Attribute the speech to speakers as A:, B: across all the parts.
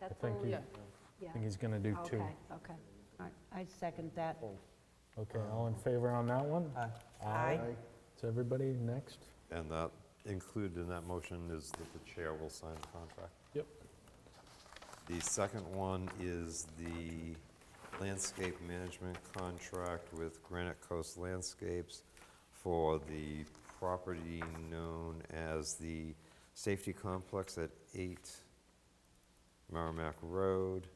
A: That's
B: think
A: all,
B: he-
A: yeah,
C: Yeah.
B: I think he's going to do Oh.
A: okay,
B: two.
A: okay.
D: I second that.
B: Okay, all in favor on that one?
E: Aye.
B: Aye. Is everybody next?
F: And that, included in that motion is that the chair will sign the contract.
B: Yep.
F: The second one is the landscape management contract with Granite Coast Landscapes for the property known as the Safety Complex at 8 Merrimack Road.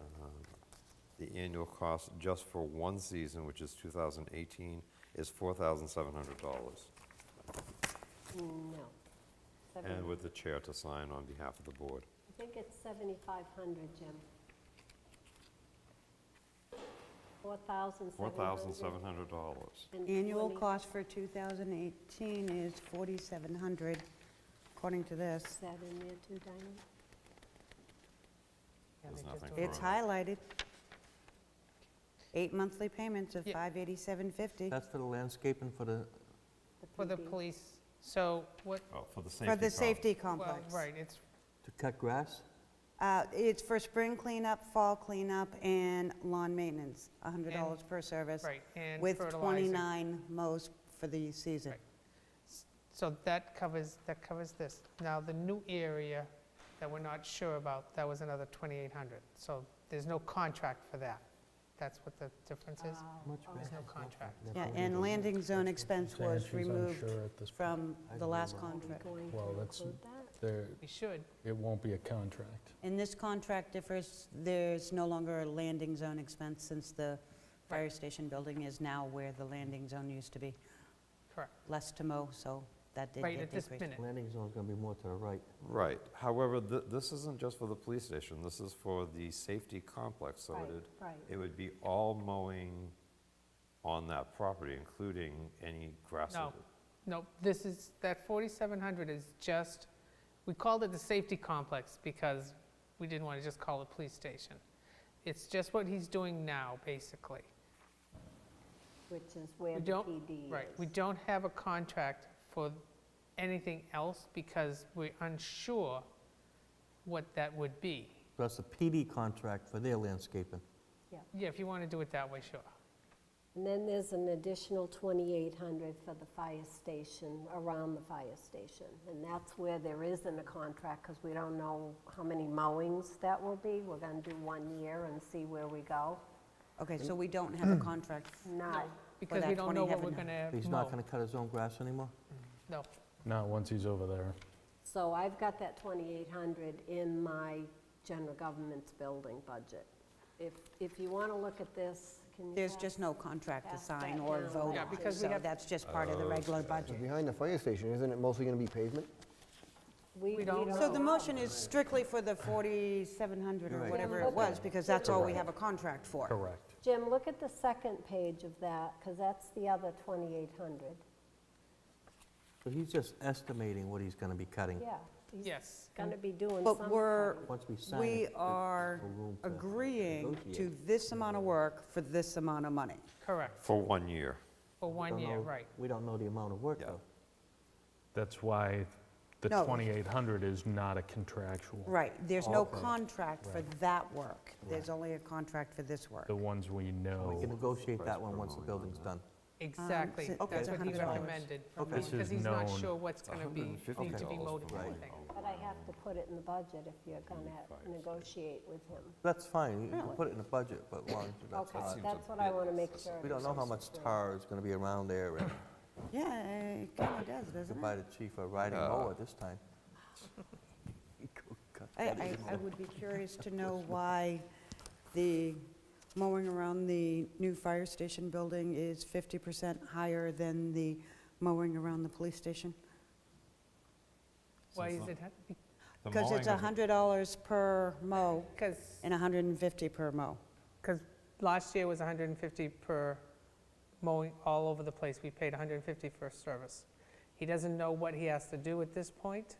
F: Um, The annual cost just for one season, which is 2018, is $4,700.
A: No. Seven-
F: And with the chair to sign on behalf of the board.
A: I think it's 7,500, Jim. 4,700.
F: $4,700.
A: and
D: Annual
A: 20
D: cost for 2018 is 4,700, according to
A: Is
D: this.
A: that in there too, Diane?
F: There's nothing
D: It's
F: wrong.
D: highlighted. Eight monthly payments of
C: Yeah.
D: 587.50
E: That's for the landscape and for the,
C: for the
A: PD.
C: police. So what,
F: Oh, for the safety.
D: for the
F: col-
D: safety
C: well,
D: complex.
C: right, it's,
E: to cut grass?
D: Uh, It's for spring cleanup, fall cleanup, and lawn maintenance, $100 per service.
C: right, and
D: With
C: fertilizer.
D: 29 mows for the season.
C: Right. So that covers, that covers this. Now, the new area that we're not sure about, that was another 2,800. So there's no contract for that. That's what the difference is.
A: Oh,
E: Much
A: okay.
C: There's no
E: grass.
C: contract.
D: Yeah, and landing zone expense was
B: Sanitary's
D: removed
B: unsure at this point.
D: from
E: I
D: the
E: don't
D: last
E: know.
A: Are we
D: contract.
A: going to
B: Well, that's-
A: include that?
B: There,
C: We should.
B: it won't be a contract.
D: And this contract differs, there's no longer a landing zone expense since the fire station building is now where the landing zone used to be.
C: Correct.
D: Less to mow, so that did
C: Right,
D: get
C: at this
D: decreased.
C: minute.
E: Landing zone's gonna be more to the right.
F: Right. However, th- this isn't just for the police station. This is for the safety complex, so
A: Right,
F: it would,
A: right.
F: it would be all mowing on that property, including any grass.
C: No.
F: that-
C: Nope, this is, that 4,700 is just, we called it the safety complex because we didn't want to just call it police station. It's just what he's doing now, basically.
A: Which is where
C: We
A: the
C: don't-
A: PD is.
C: Right, we don't have a contract for anything else because we're unsure what that would be.
E: That's the PD contract for their landscaping.
C: Yeah, if you want to do it that way, sure.
A: And then there's an additional 2,800 for the fire station, around the fire station. And that's where there isn't a contract, because we don't know how many mowings that will be. We're going to do one year and see where we go.
D: Okay, so we don't have a contract.
A: Not,
C: Because
D: that
C: we don't know what we're going
D: 2,800.
C: to mow.
E: He's not gonna cut his own grass anymore?
C: No,
B: Not once he's over there.
A: so I've got that 2,800 in my general government's building budget. If, if you want to look at this, can you?
D: There's
A: pass-
D: just no contract to
A: Pass
D: sign
A: that
D: or
A: down.
D: vote
C: Yeah,
D: on,
C: because we
D: so
C: have-
D: that's just part of the
E: Uh,
D: regular budget.
G: Behind the fire station, isn't it mostly going to be pavement?
A: We we
C: don't
A: don't.
D: So the
A: know.
D: motion is strictly for the 4,700 or
E: Right.
D: whatever it was, because that's all we have a contract for.
B: Correct.
A: Jim, look at the second page of that, because that's the other 2,800.
E: So he's just estimating what he's gonna be cutting.
A: Yeah, he's
C: yes.
A: going to be doing some.
D: But we're,
E: Once we sign it.
D: we
E: there's
D: are
E: no room to
D: agreeing to
E: negotiate.
D: this amount of work for this amount of money.
C: Correct,
F: For one year.
C: for one
E: Don't
C: year,
E: know-
D: Um,
C: right.
E: We don't know the amount of work,
F: Yeah.
E: though.
B: That's why the
D: No.
B: 2,800 is not a contractual.
D: Right, there's no
B: Okay.
D: contract for that work. There's only a contract for this work.
B: The ones we know.
E: We can negotiate
F: Price
E: that one
F: per
E: once the
F: mowing on
E: building's
F: that.
E: done.
C: Exactly,
D: so
E: it's
C: that's what he
E: $100.
C: recommended.
E: Okay.
B: This
C: Because
B: is
C: he's not
B: known.
C: sure what's going to be, need to be
E: $150
C: mowed and
E: for mowing.
C: everything.
A: But I have to put it in the budget if you're going to negotiate with him.
E: That's fine, you can
D: Really?
E: put it in the budget, but long, that's
A: Okay,
E: not.
A: that's what I want to make sure.
E: We don't know how much tar is gonna be around there, and
D: Yeah, it kind of does,
E: to
D: doesn't
E: buy
D: it?
E: the chief a riding mower this time.
D: I, I, I would be curious to know why the mowing around the new fire station building is 50% higher than the mowing around the police station.
C: Why is it,
F: The
D: Because it's
F: mowing is-
D: $100 per mow
C: because,
D: and 150 per mow.
C: because last year was 150 per mowing all over the place. We paid 150 for service. He doesn't know what he has to do at this point.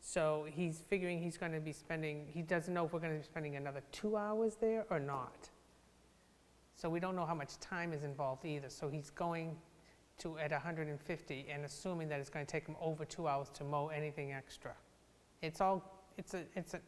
C: So he's figuring he's going to be spending, he doesn't know if we're going to be spending another two hours there or not. So we don't know how much time is involved either. So he's going to at 150 and assuming that it's going to take him over two hours to mow anything extra. It's all, it's a, it's an